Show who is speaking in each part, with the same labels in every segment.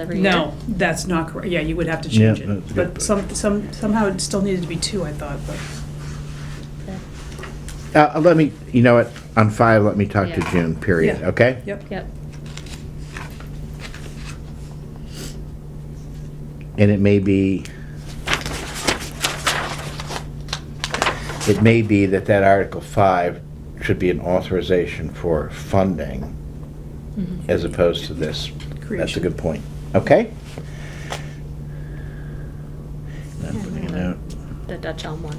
Speaker 1: every year?
Speaker 2: No, that's not correct. Yeah, you would have to
Speaker 3: Yeah,
Speaker 2: change
Speaker 3: that's a
Speaker 2: it.
Speaker 3: good
Speaker 2: But some, some, somehow it still needed to be two, I thought, but.
Speaker 1: Okay.
Speaker 3: Uh, let me, you know what, on five, let me talk to
Speaker 1: Yeah.
Speaker 3: June, period,
Speaker 2: Yeah.
Speaker 3: okay?
Speaker 2: Yep.
Speaker 1: Yep,
Speaker 3: And it may be, it may be that that Article five should be an authorization for funding as opposed to this. That's a
Speaker 2: Creation.
Speaker 3: good point, okay? Not putting it out.
Speaker 1: the Dutch Elm one,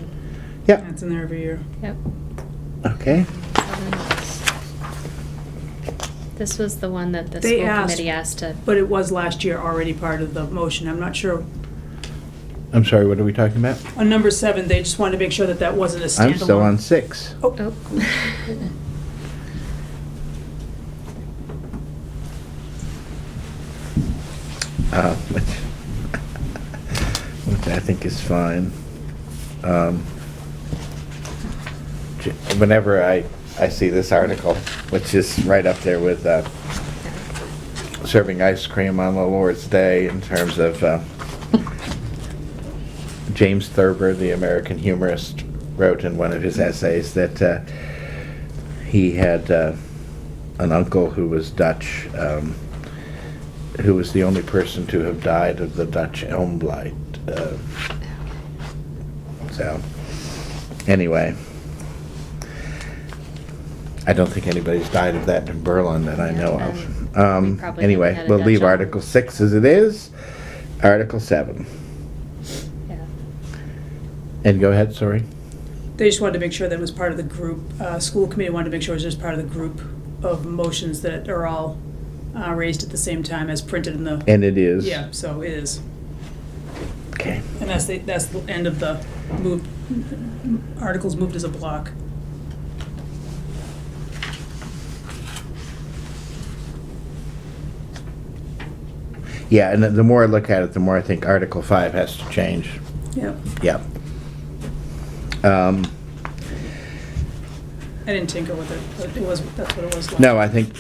Speaker 3: Yep,
Speaker 2: That's in there every year.
Speaker 1: yep.
Speaker 3: okay,
Speaker 1: This was the one that the
Speaker 2: They
Speaker 1: school
Speaker 2: asked-
Speaker 1: committee asked to,
Speaker 2: But it was last year already part of the motion. I'm not sure.
Speaker 3: I'm sorry, what are we talking about?
Speaker 2: On number seven, they just wanted to make sure that that wasn't a standalone.
Speaker 3: I'm still on six.
Speaker 2: Oh,
Speaker 1: oh.
Speaker 3: Uh, which, which I think is fine. Um, j- Whenever I, I see this article, which is right up there with uh, serving ice cream on the Lord's Day in terms of uh, James Thurber, the American humorist, wrote in one of his essays that uh, he had uh, an uncle who was Dutch. Um, who was the only person to have died of the Dutch elm blight. Uh, so, anyway, I don't think anybody's died of that in Berlin that I
Speaker 1: Yeah,
Speaker 3: know
Speaker 1: um,
Speaker 3: of.
Speaker 1: we
Speaker 3: Um,
Speaker 1: probably
Speaker 3: anyway,
Speaker 1: haven't had a
Speaker 3: we'll
Speaker 1: Dutch
Speaker 3: leave
Speaker 1: elm.
Speaker 3: Article 6 as it is. Article 7.
Speaker 1: Yeah.
Speaker 3: And go ahead, sorry.
Speaker 2: They just wanted to make sure that it was part of the group, uh, school committee wanted to make sure it was just part of the group of motions that are all, uh, raised at the same time as printed in the,
Speaker 3: And it is.
Speaker 2: yeah, so it is.
Speaker 3: Okay.
Speaker 2: And that's the, that's the end of the move, articles moved as a block.
Speaker 3: Yeah, and the- the more I look at it, the more I think Article 5 has to change.
Speaker 2: Yep.
Speaker 3: Yeah. Um,
Speaker 2: I didn't tinker with it, but it was, that's what it was.
Speaker 3: No, I think,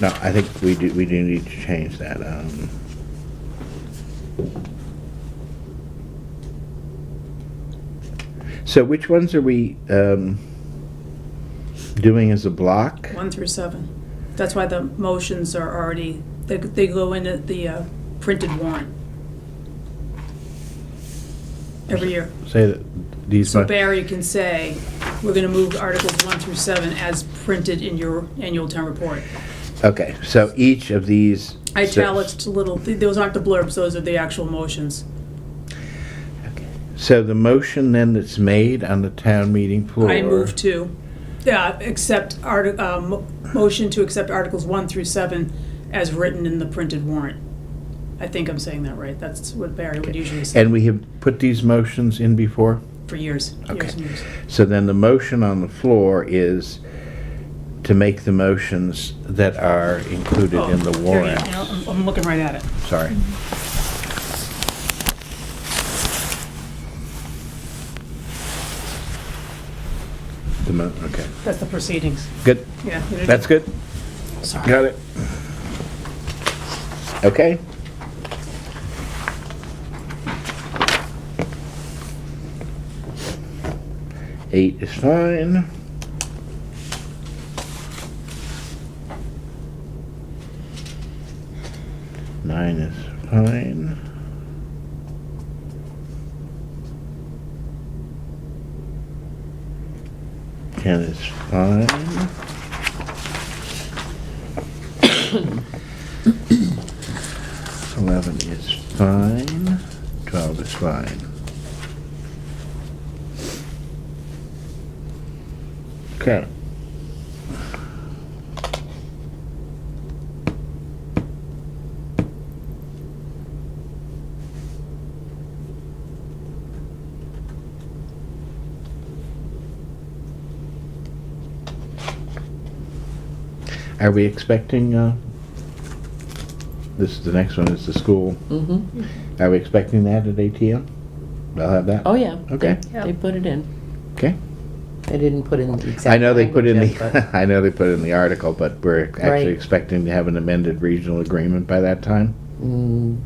Speaker 3: no, I think we do, we do need to change that. um, So which ones are we um, doing as a block?
Speaker 2: One through seven. That's why the motions are already, they, they go into the uh, printed warrant. Every year.
Speaker 3: Say that these.
Speaker 2: So
Speaker 3: mon-
Speaker 2: Barry can say, we're gonna move Articles one through seven as printed in your annual town report.
Speaker 3: Okay, so each of these.
Speaker 2: Italics, little, those aren't the blurbs, those are the actual motions.
Speaker 3: So the motion then that's made on the town meeting floor.
Speaker 2: I move to, yeah, accept arti, uh, mo- motion to accept Articles one through seven as written in the printed warrant. I think I'm saying that right. That's what Barry would usually say.
Speaker 3: And we have put these motions in before?
Speaker 2: For years,
Speaker 3: Okay.
Speaker 2: years and years.
Speaker 3: So then the motion on the floor is to make the motions that are included in
Speaker 2: Oh,
Speaker 3: the
Speaker 2: there you
Speaker 3: warrant.
Speaker 2: go. I'm- I'm looking right at it.
Speaker 3: Sorry. The mo, okay,
Speaker 2: That's the proceedings.
Speaker 3: good.
Speaker 2: Yeah.
Speaker 3: That's good?
Speaker 2: Sorry.
Speaker 3: Got it? Okay. Eight is fine. Nine is fine. Ten is fine. Eleven is fine. Twelve is fine. Okay. Are we expecting, uh, this, the next one is the school.
Speaker 4: Mm-hmm.
Speaker 3: Are we expecting that at ATM? They'll have that?
Speaker 4: Oh, yeah.
Speaker 3: Okay.
Speaker 4: They- They put it in.
Speaker 3: Okay.
Speaker 4: They didn't put in the exact.
Speaker 3: I know they put in
Speaker 4: language yet,
Speaker 3: the, I know they put in the article, but we're actually
Speaker 4: Right.
Speaker 3: expecting to have an amended regional agreement by that time?
Speaker 4: but, mm,